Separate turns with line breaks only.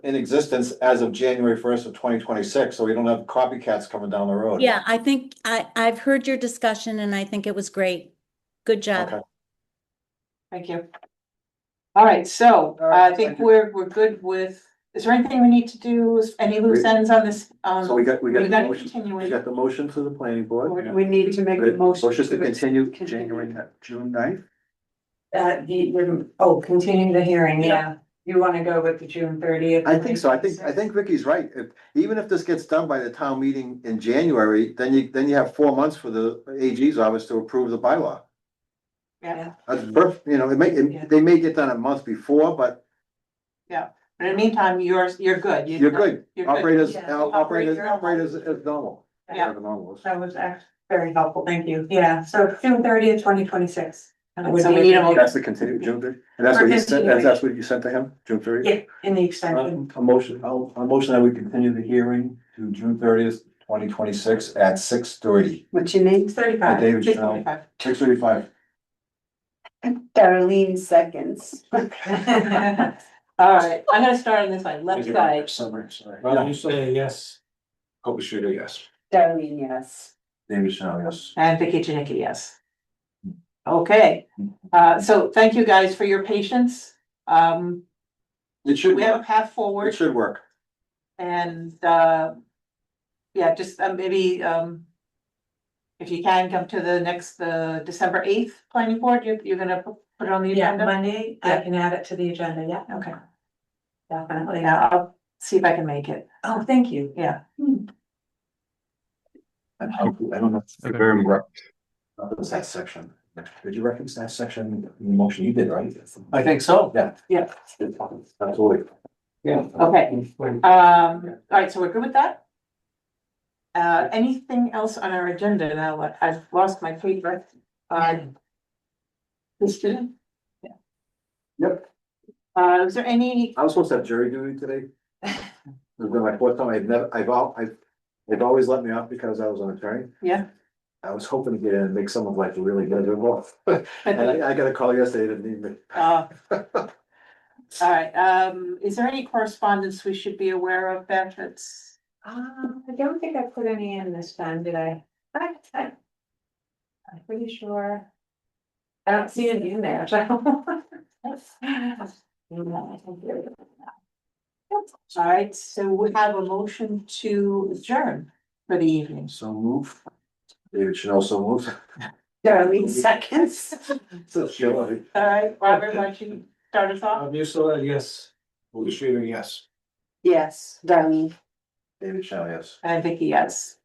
in existence as of January first of twenty twenty-six, so we don't have copycats coming down the road.
Yeah, I think I, I've heard your discussion and I think it was great. Good
Okay.
job.
Thank you. All right, so uh,
All right,
I
thank
think
you.
we're, we're good with, is there anything we need to do, is any loose
We-
ends on this? um,
So we got, we got
we
the
gotta
motion,
continue
we
it.
got the motion to the planning board.
We need to make the motion.
Motion to continue
continue.
January, ni- June 9th.
Uh, the, the- oh, continue the hearing,
Yeah.
yeah. You wanna go with the June thirtieth?
I think so, I think, I think Vicky's right, if, even if this gets done by the town meeting in January, then you, then you have four months for the AG's office to approve the bylaw.
Yeah,
That's perfect, you know, it may,
Yeah.
it- they may get done a month before, but
but in the meantime, you're, you're good. You-
you're good,
You're good.
operators,
Yeah.
operators,
Operate normal.
operators as normal.
Yeah.
As normal.
That was actually very helpful, thank you. Yeah, so June thirtieth, twenty twenty-six.
So we need a mo-
That's the continue, June thirty, and that's what you sent, that's, that's what you sent to him, June thirty? Uh,
Yeah, in the extension.
A motion, I'll, a motion that we continue the hearing to June thirtieth, twenty twenty-six at six thirty.
What's your name? Thirty-five.
David
Six twenty-five.
six thirty-five.
Darlene seconds.
All right, I'm gonna start on this side, left side.
Summer, sorry.
Well, you say yes.
Kobe Schrader, yes.
Darlene, yes.
David Chanel, yes.
And Vicky Janicki, yes. Okay, uh, so thank you guys for your patience. Um,
It should,
we have
work.
a path forward
it should work.
and, uh, yeah, just uh, maybe, um, if you can come to the next, the December eighth planning board, you're, you're gonna pu- put it on the
Yeah,
agenda?
Monday, I
Yeah.
can add it to the agenda, yeah,
Okay,
definitely.
yeah, I'll see if I can make it.
Oh, thank you.
Yeah.
I don't I don't know.
Okay.
Very much. That was that section. Did you reference that section in the motion you did, right?
I think so.
Yeah.
Yeah.
Absolutely.
Yeah.
Oh,
Okay,
When-
um, all right, so we're good with that? Uh, anything else on our agenda now? I've lost my paper. Uh, Christina?
Yep,
Uh, is there any,
I was supposed to have jury duty today. This has been my fourth time, I've never, I've all, I've, they've always let me off because I was an attorney.
yeah,
I was hoping to get in and make someone's life really miserable. And I, I got a call yesterday, they didn't need me.
uh, all right, um, is there any correspondence we should be aware of, Beth, that's?
Um, I don't think I put any in this time, did I? I, I. I'm pretty sure. I don't see any in there, so.
All right, so we have a motion to adjourn for the evening.
So move. David Chanel, so move.
Darlene seconds.
So chill.
All right, Robert, why don't you start us
Uh,
off?
Um, you saw that, yes. Kobe Schrader, yes.
Yes, Darlene.
David Chanel, yes.
And Vicky, yes.